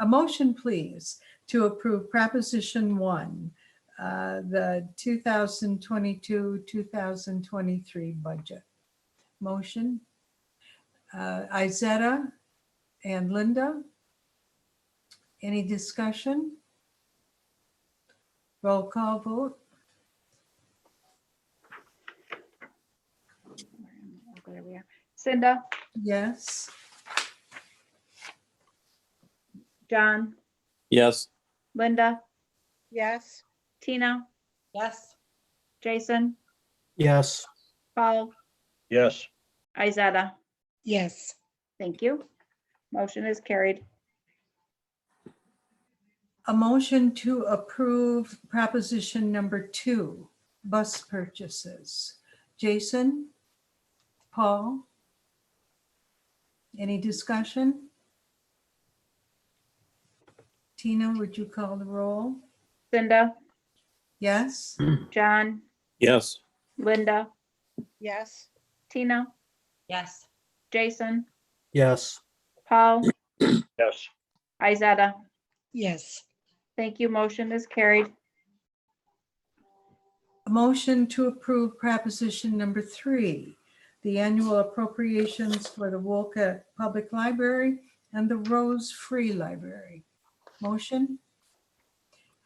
a motion, please, to approve Proposition 1, uh, the 2022-2023 budget. Motion. Uh, Izetta and Linda. Any discussion? Roll call vote. Oh, There we are. Cinda, Yes. John, Yes, Linda, Yes. Tina, Yes. Jason, Yes, Paul, yes, Izetta. Yes. Thank you. Motion is carried. A motion to approve Proposition Number 2, bus purchases. Jason? Paul? Any discussion? Tina, would you call the roll? Cinda, Yes? John, yes, Linda, Yes. Tina, Yes. Jason, yes, Paul, yes, Izetta. Yes. Thank you. Motion is carried. A motion to approve Proposition Number 3, the annual appropriations for the Wolcott Public Library and the Rose Free Library. Motion?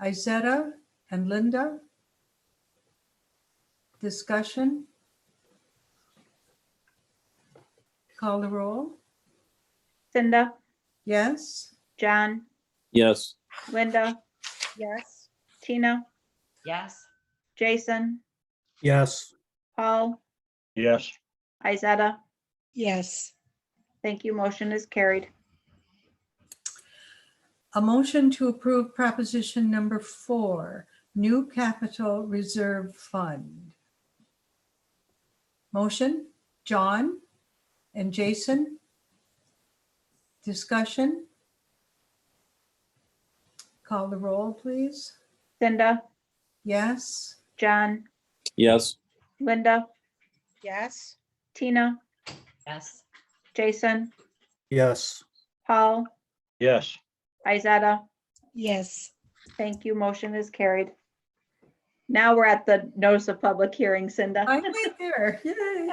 Izetta and Linda? Discussion? Call the roll? Cinda, Yes? John, yes, Linda, Yes. Tina, Yes. Jason, yes, Paul, yes, Izetta. Yes. Thank you. Motion is carried. A motion to approve Proposition Number 4, new capital reserve fund. Motion, John and Jason. Discussion. Call the roll, please. Cinda, Yes, John, yes, Linda, Yes. Tina, Yes. Jason, yes, Paul, yes, Izetta. Yes. Thank you. Motion is carried. Now we're at the notice of public hearing, Cinda. finally there. Yay.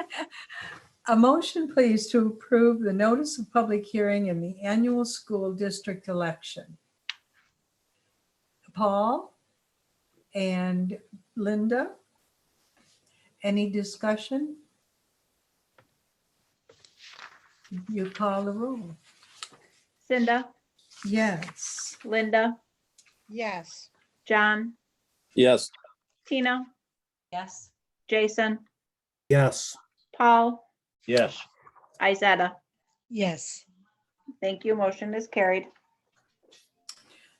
A motion, please, to approve the notice of public hearing in the annual school district election. Paul and Linda. Any discussion? You call the roll. Cinda, Yes. Linda, Yes. John, yes, Tina, Yes. Jason, yes, Paul, yes, Izetta. Yes. Thank you. Motion is carried.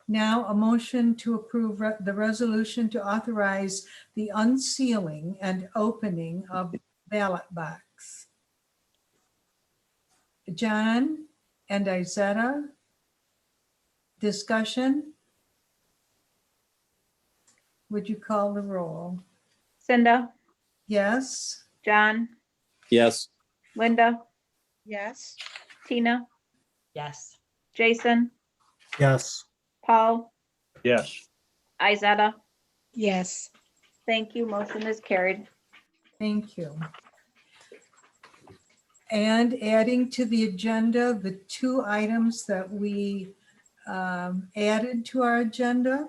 Now, a motion to approve re- the resolution to authorize the unsealing and opening of ballot box. John and Izetta. Discussion? Would you call the roll? Cinda, Yes? John, yes, Linda, Yes. Tina, Yes. Jason, yes, Paul, yes, Izetta. Yes. Thank you. Motion is carried. Thank you. And adding to the agenda, the two items that we um, added to our agenda.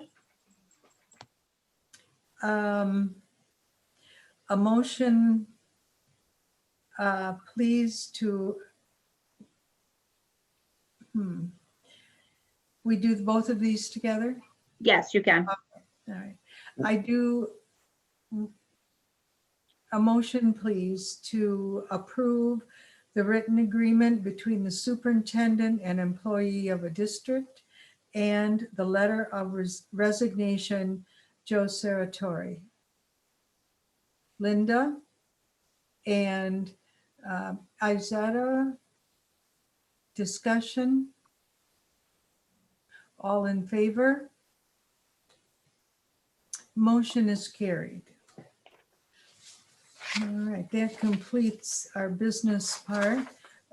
Um, A motion, uh, please to. Hmm. We do both of these together? Yes, you can. All right, I do a motion, please, to approve the written agreement between the superintendent and employee of a district and the letter of res- resignation, Joe Saratori. Linda and uh, Izetta. Discussion. All in favor? Motion is carried. All right, that completes our business part.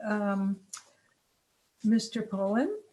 Um, Mr. Pollan,